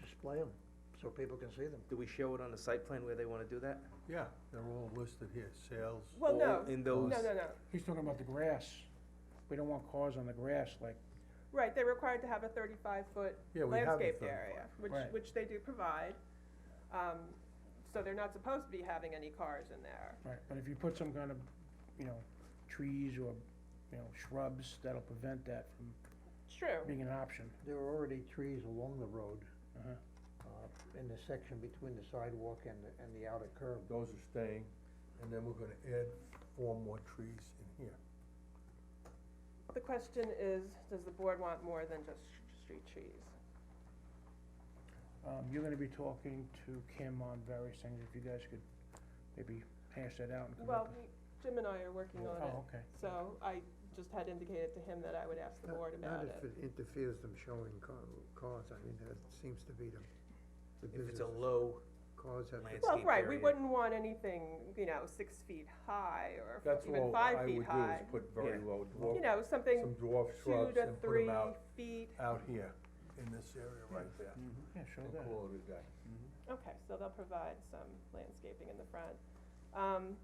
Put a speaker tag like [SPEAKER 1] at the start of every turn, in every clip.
[SPEAKER 1] display them, so people can see them.
[SPEAKER 2] Do we show it on the site plan where they wanna do that?
[SPEAKER 3] Yeah, they're all listed here, sales.
[SPEAKER 4] Well,
[SPEAKER 2] All
[SPEAKER 4] no,
[SPEAKER 2] In
[SPEAKER 4] no,
[SPEAKER 2] those,
[SPEAKER 4] no, no,
[SPEAKER 5] He's talking about the grass. We don't want cars on the grass like,
[SPEAKER 4] right, they're required to have a thirty-five foot
[SPEAKER 3] Yeah, we have the
[SPEAKER 4] landscaped
[SPEAKER 3] 35.
[SPEAKER 4] area, which,
[SPEAKER 5] Right.
[SPEAKER 4] which they do provide. Um, so they're not supposed to be having any cars in there.
[SPEAKER 5] right, but if you put some kind of, you know, trees or, you know, shrubs, that'll prevent that from
[SPEAKER 4] It's true,
[SPEAKER 5] being an option.
[SPEAKER 1] There are already trees along the road,
[SPEAKER 5] Uh-huh.
[SPEAKER 1] uh, in the section between the sidewalk and the, and the outer curb.
[SPEAKER 3] Those are staying, and then we're gonna add four more trees in here.
[SPEAKER 4] the question is, does the board want more than just sh- street trees?
[SPEAKER 5] Um, you're gonna be talking to Kim on various things, if you guys could maybe hash that out and come
[SPEAKER 4] Well,
[SPEAKER 5] up with.
[SPEAKER 4] we- Jim and I are working on it,
[SPEAKER 5] Oh, okay.
[SPEAKER 4] so I just had indicated to him that I would ask the board about it.
[SPEAKER 3] if it interferes them showing cars, I mean, that seems to be the,
[SPEAKER 2] if it's a low
[SPEAKER 3] cars have.
[SPEAKER 2] landscape
[SPEAKER 4] Well,
[SPEAKER 2] area.
[SPEAKER 4] right, we wouldn't want anything, you know, six feet high or
[SPEAKER 3] That's
[SPEAKER 4] even
[SPEAKER 3] all I
[SPEAKER 4] five
[SPEAKER 3] would do
[SPEAKER 4] feet
[SPEAKER 3] is
[SPEAKER 4] high.
[SPEAKER 3] put very
[SPEAKER 2] Yeah.
[SPEAKER 3] low
[SPEAKER 4] You
[SPEAKER 3] dwarf,
[SPEAKER 4] know,
[SPEAKER 3] some
[SPEAKER 4] something
[SPEAKER 3] dwarf
[SPEAKER 4] two
[SPEAKER 3] shrubs
[SPEAKER 4] to
[SPEAKER 3] and put
[SPEAKER 4] three
[SPEAKER 3] them out,
[SPEAKER 4] feet,
[SPEAKER 3] out here, in this area right there.
[SPEAKER 5] Yeah, show
[SPEAKER 3] And
[SPEAKER 5] that.
[SPEAKER 3] call it a day. Mm-hmm.
[SPEAKER 4] okay, so they'll provide some landscaping in the front. Um,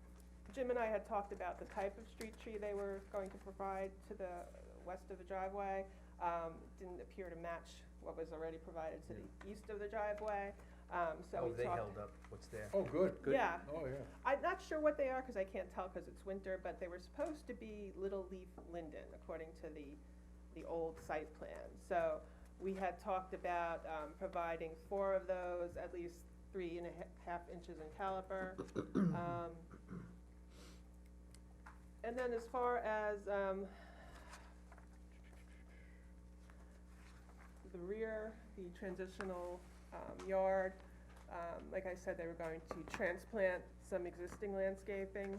[SPEAKER 4] Jim and I had talked about the type of street tree they were going to provide to the west of the driveway. Um, didn't appear to match what was already provided to the east of the driveway, um, so
[SPEAKER 2] Oh,
[SPEAKER 4] we
[SPEAKER 2] they
[SPEAKER 4] talked.
[SPEAKER 2] held up what's there.
[SPEAKER 3] Oh, good,
[SPEAKER 2] good.
[SPEAKER 4] Yeah,
[SPEAKER 3] oh, yeah.
[SPEAKER 4] I'm not sure what they are, cause I can't tell, cause it's winter, but they were supposed to be little leaf linden, according to the, the old site plan. So, we had talked about, um, providing four of those, at least three and a ha- half inches in caliper. Um, And then as far as, um, the rear, the transitional, um, yard, um, like I said, they were going to transplant some existing landscaping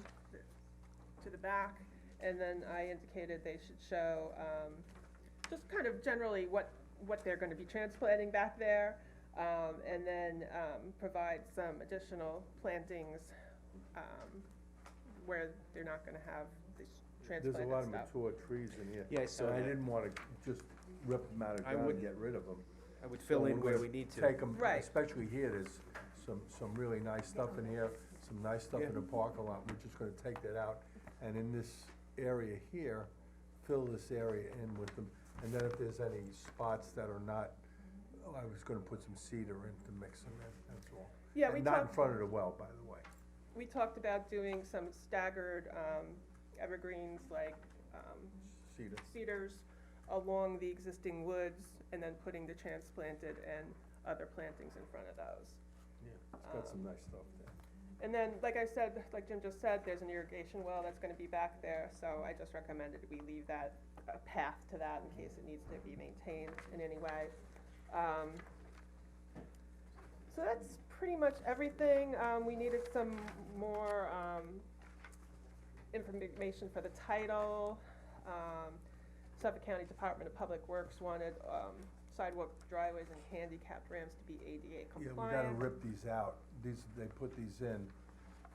[SPEAKER 4] to the back, and then I indicated they should show, um, just kind of generally what, what they're gonna be transplanting back there, um, and then, um, provide some additional plantings, um, where they're not gonna have this
[SPEAKER 3] There's a
[SPEAKER 4] transplanted
[SPEAKER 3] lot of
[SPEAKER 4] stuff.
[SPEAKER 3] mature trees in here.
[SPEAKER 2] Yeah, I saw
[SPEAKER 3] And I
[SPEAKER 2] that.
[SPEAKER 3] didn't wanna just rip them out of
[SPEAKER 2] I
[SPEAKER 3] ground and
[SPEAKER 2] wouldn't-
[SPEAKER 3] get rid of them.
[SPEAKER 2] I would fill in where we need to.
[SPEAKER 3] Take them,
[SPEAKER 4] Right.
[SPEAKER 3] especially here, there's some, some really nice stuff in here, some nice stuff in the parking lot, we're just gonna take that out. And in this area here, fill this area in with them, and then if there's any spots that are not, oh, I was gonna put some cedar in to mix them in, that's all.
[SPEAKER 4] Yeah,
[SPEAKER 3] And
[SPEAKER 4] we
[SPEAKER 3] Not in
[SPEAKER 4] talked-
[SPEAKER 3] front of the well, by the way.
[SPEAKER 4] We talked about doing some staggered, um, evergreens like, um,
[SPEAKER 3] Cedar.
[SPEAKER 4] cedars along the existing woods and then putting the transplanted and other plantings in front of those.
[SPEAKER 3] Yeah. It's got some nice stuff there.
[SPEAKER 4] And then, like I said, like Jim just said, there's an irrigation well that's gonna be back there, so I just recommended we leave that, a path to that in case it needs to be maintained in any way. Um, so that's pretty much everything, um, we needed some more, um, information for the title. Um, Suffolk County Department of Public Works wanted, um, sidewalk driveways and handicapped ramps to be ADA
[SPEAKER 3] Yeah,
[SPEAKER 4] compliant.
[SPEAKER 3] we gotta rip these out, these, they put these in,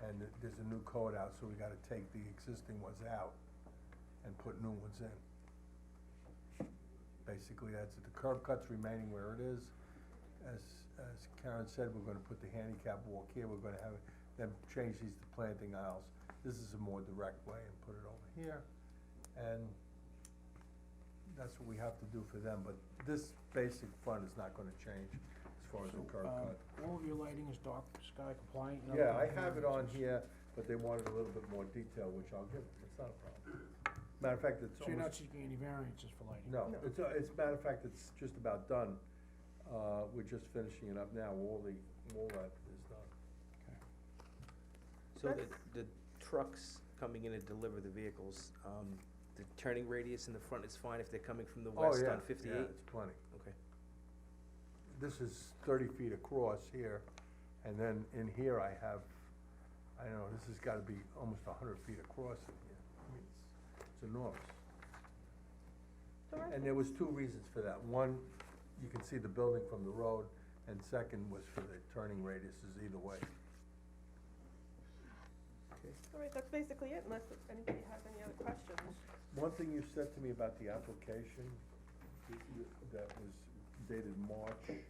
[SPEAKER 3] and th- there's a new code out, so we gotta take the existing ones out and put new ones in. Basically, that's it, the curb cut's remaining where it is, as, as Karen said, we're gonna put the handicap walk here, we're gonna have them change these to planting aisles. This is a more direct way and put it over here, and that's what we have to do for them, but this basic front is not gonna change as far as the curb
[SPEAKER 5] Um,
[SPEAKER 3] cut.
[SPEAKER 5] all of your lighting is dark sky compliant? and other
[SPEAKER 3] Yeah, I
[SPEAKER 5] compliant
[SPEAKER 3] have it on
[SPEAKER 5] reasons.
[SPEAKER 3] here, but they wanted a little bit more detail, which I'll give them, it's not a problem. Matter of fact, it's
[SPEAKER 5] So you're not
[SPEAKER 3] almost,
[SPEAKER 5] seeking any variances for lighting?
[SPEAKER 3] no, it's, uh, it's, matter of fact, it's just about done. Uh, we're just finishing it up now, all the, all that is done.
[SPEAKER 2] So
[SPEAKER 4] That's-
[SPEAKER 2] the, the trucks coming in to deliver the vehicles, um, the turning radius in the front is fine if they're coming from the west on fifty-eight?
[SPEAKER 3] Oh, Yeah, it's plenty.
[SPEAKER 2] Okay.
[SPEAKER 3] This is thirty feet across here, and then in here I have, I don't know, this has gotta be almost a hundred feet across in here. I mean, it's- it's enormous.
[SPEAKER 4] So I
[SPEAKER 3] And there was two reasons for that. One, you can see the building from the road, and second was for the turning radiuses either way.
[SPEAKER 4] All right, that's basically it, unless anybody has any other questions.
[SPEAKER 3] One thing you said to me about the application, you- that was dated March